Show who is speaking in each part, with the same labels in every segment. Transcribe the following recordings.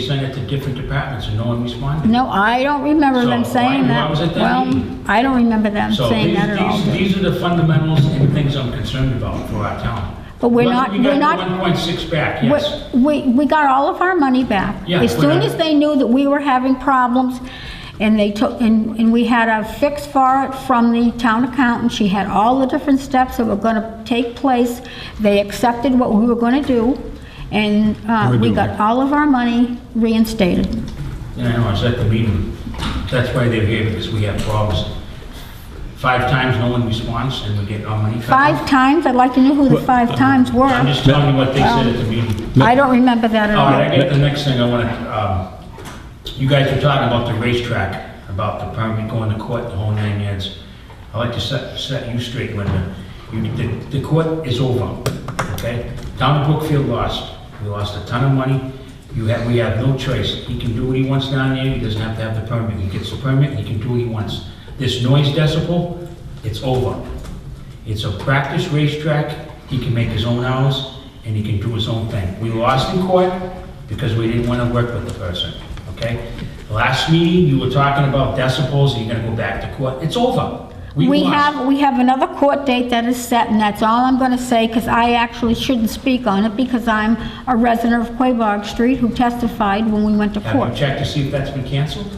Speaker 1: sent it to different departments and no one responded.
Speaker 2: No, I don't remember them
Speaker 1: So,
Speaker 2: saying
Speaker 1: why-
Speaker 2: that.
Speaker 1: why was it that meeting?
Speaker 2: Well, I don't remember them
Speaker 1: So
Speaker 2: saying
Speaker 1: these,
Speaker 2: that at all.
Speaker 1: these, these are the fundamentals and things I'm concerned about for our town.
Speaker 2: But we're not-
Speaker 1: You got
Speaker 2: we're not-
Speaker 1: one point six back,
Speaker 2: We-
Speaker 1: yes.
Speaker 2: We, we got all of our money back.
Speaker 1: Yeah,
Speaker 2: As soon
Speaker 1: we're-
Speaker 2: as they knew that we were having problems, and they took, and, and we had a fix for it from the town accountant, she had all the different steps that were gonna take place, they accepted what we were gonna do, and, uh,
Speaker 3: We're
Speaker 2: we
Speaker 3: doing
Speaker 2: got
Speaker 3: it.
Speaker 2: all of our money reinstated.
Speaker 1: And I know, I was at the meeting. That's why they're here, because we have problems. Five times, no one responds, and we get our money cut off.
Speaker 2: Five times, I'd like to know who the five times were.
Speaker 1: uh, I'm just telling you what they
Speaker 2: Um,
Speaker 1: said at the meeting.
Speaker 2: I don't remember that at
Speaker 1: All right,
Speaker 2: all.
Speaker 1: I get the next thing I want to, um, you guys were talking about the racetrack, about the permit going to court, the whole nine yards. I'd like to set, set you straight, Linda. You, the, the court is over, okay? Town of Brookfield lost. We lost a ton of money. You have, we have no choice. He can do what he wants down there. He doesn't have to have the permit. He gets the permit, he can do what he wants. This noise decibel, it's over. It's a practice racetrack, he can make his own hours, and he can do his own thing. We lost in court because we didn't want to work with the person, okay? Last meeting, you were talking about decibels, and you're gonna go back to court, it's over.
Speaker 2: We
Speaker 1: lost.
Speaker 2: have, we have another court date that is set, and that's all I'm going to say, because I actually shouldn't speak on it, because I'm a resident of Quabog Street who testified when we went to
Speaker 1: Have you
Speaker 2: court.
Speaker 1: checked to see if that's been canceled?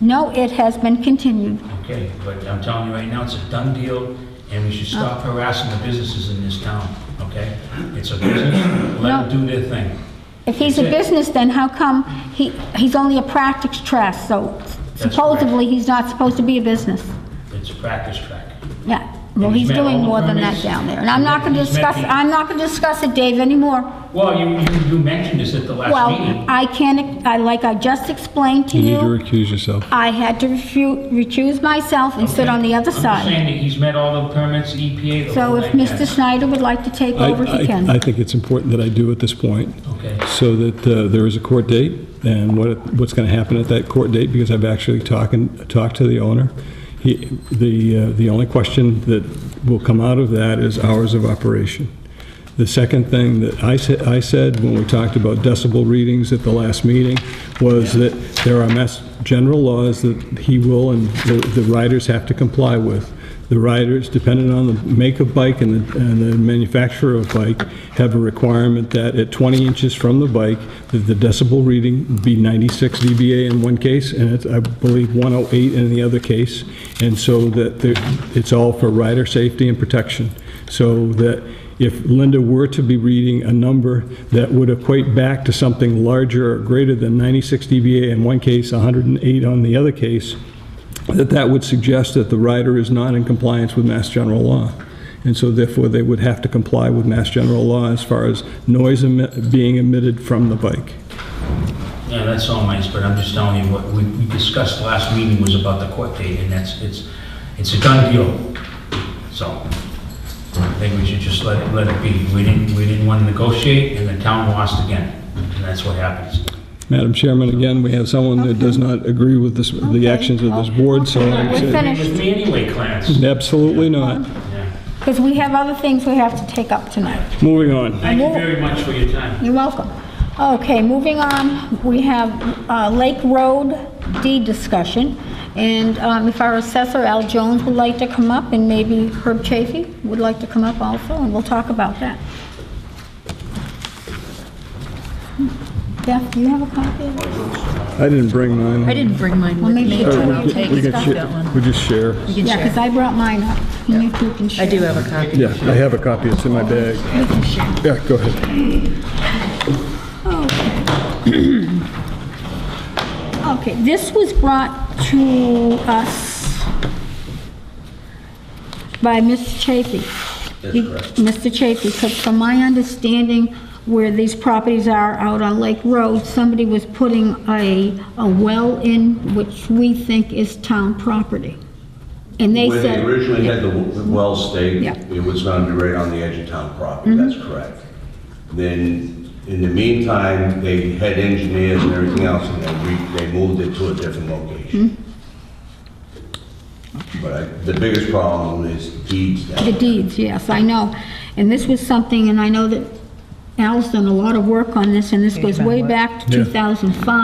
Speaker 2: No, it has been continued.
Speaker 1: Okay, but I'm telling you right now, it's a done deal, and we should stop
Speaker 2: Oh.
Speaker 1: harassing the businesses in this town, okay? It's a business, let them do their thing.
Speaker 2: If he's a
Speaker 1: That's it.
Speaker 2: business, then how come he, he's only a practice trust, so
Speaker 1: correct.
Speaker 2: supposedly he's not supposed to be a business?
Speaker 1: It's a practice track.
Speaker 2: Yeah, well,
Speaker 1: And he's
Speaker 2: he's
Speaker 1: met all
Speaker 2: doing
Speaker 1: the
Speaker 2: more than that
Speaker 1: permits.
Speaker 2: down there, and I'm not going to
Speaker 1: He's met
Speaker 2: discuss,
Speaker 1: the-
Speaker 2: I'm not going to discuss it, Dave, anymore.
Speaker 1: Well, you, you- you mentioned this at the last
Speaker 2: Well,
Speaker 1: meeting.
Speaker 2: I can't, I, like I just explained to
Speaker 3: You need to
Speaker 2: you,
Speaker 3: recuse yourself.
Speaker 2: I had to refu- recuse myself and sit on the
Speaker 1: I'm
Speaker 2: other
Speaker 1: just
Speaker 2: side.
Speaker 1: saying that he's met all the permits, EPA, the
Speaker 2: So
Speaker 1: whole
Speaker 2: if
Speaker 1: nine
Speaker 2: Mr.
Speaker 1: yards.
Speaker 2: Snyder would like to take
Speaker 3: I-
Speaker 2: over, he
Speaker 3: I- I
Speaker 2: can.
Speaker 3: think it's important that I do at this point,
Speaker 1: Okay,
Speaker 3: so that uh, there is a court date, and what, what's going to happen at that court date, because I've actually talked, talked to the owner. He, the, uh, the only question that will come out of that is hours of operation. The second thing that I said, I said when we talked about decibel readings at the last meeting, was that there are mass, general laws that he will and the the riders have to comply with. The riders, depending on the make of bike and the, and the manufacturer of bike, have a requirement that at 20 inches from the bike, that the decibel reading be 96 dBA in one case, and it's, I believe, 108 in the other case, and so that there- it's all for rider safety and protection. So that if Linda were to be reading a number that would equate back to something larger or greater than 96 dBA in one case, 108 on the other case, that that would suggest that the rider is not in compliance with Mass General law. And so therefore, they would have to comply with Mass General law as far as noise emi- being emitted from the bike.
Speaker 1: yeah, that's all nice, but I'm just telling you what we we discussed last meeting was about the court date, and that's, it's, it's a done deal. So, I think we should just let it, let it be. We didn't, we didn't want to negotiate, and the town lost again, and that's what happens.
Speaker 3: Madam Chairman, again, we have someone that does not agree with this, the
Speaker 2: Okay.
Speaker 3: actions of this board, so
Speaker 2: Okay.
Speaker 3: I
Speaker 2: We're
Speaker 3: said,
Speaker 2: finished.
Speaker 1: With me anyway, Clarence.
Speaker 3: absolutely not.
Speaker 1: Yeah.
Speaker 2: Because we have other things we have to take up tonight.
Speaker 3: Moving on.
Speaker 1: Thank you very much for your time.
Speaker 2: You're welcome. Okay, moving on, we have uh, Lake Road deed discussion. And um, if our assessor, Al Jones, would like to come up, and maybe Herb Chafee would like to come up also, and we'll talk about that. Jeff, do you have a copy of it?
Speaker 3: I didn't bring mine.
Speaker 4: I didn't bring mine with
Speaker 2: maybe
Speaker 4: me.
Speaker 2: you
Speaker 3: Oh,
Speaker 2: can
Speaker 4: I'll
Speaker 3: we
Speaker 4: take
Speaker 3: can- we can
Speaker 4: that
Speaker 3: share-
Speaker 4: one.
Speaker 3: we just share.
Speaker 4: You can
Speaker 2: Yeah, because
Speaker 4: share.
Speaker 2: I brought mine up, and you two can share.
Speaker 4: I do have a copy.
Speaker 3: Yeah, I have a copy, it's in my bag. Yeah, go ahead.
Speaker 2: Okay, this was brought to us by Mr. Chafee. He- Mr. Chafee, because from my understanding, where these properties are out on Lake Road, somebody was putting a, a well in, which we think is town property. And they
Speaker 5: When
Speaker 2: said...
Speaker 5: they originally had the w- the well staked,
Speaker 2: Yeah. Mm-hmm.
Speaker 5: it was going to be right on the edge of town property, that's correct. Then, in the meantime, they had engineers and everything else, and they re- they moved it to a different location.
Speaker 2: Mm-hmm.
Speaker 5: But I- the biggest problem is deeds down
Speaker 2: The
Speaker 5: there.
Speaker 2: deeds, yes, I know. And this was something, and I know that Al's done a lot of work on this, and this goes way back to 2005.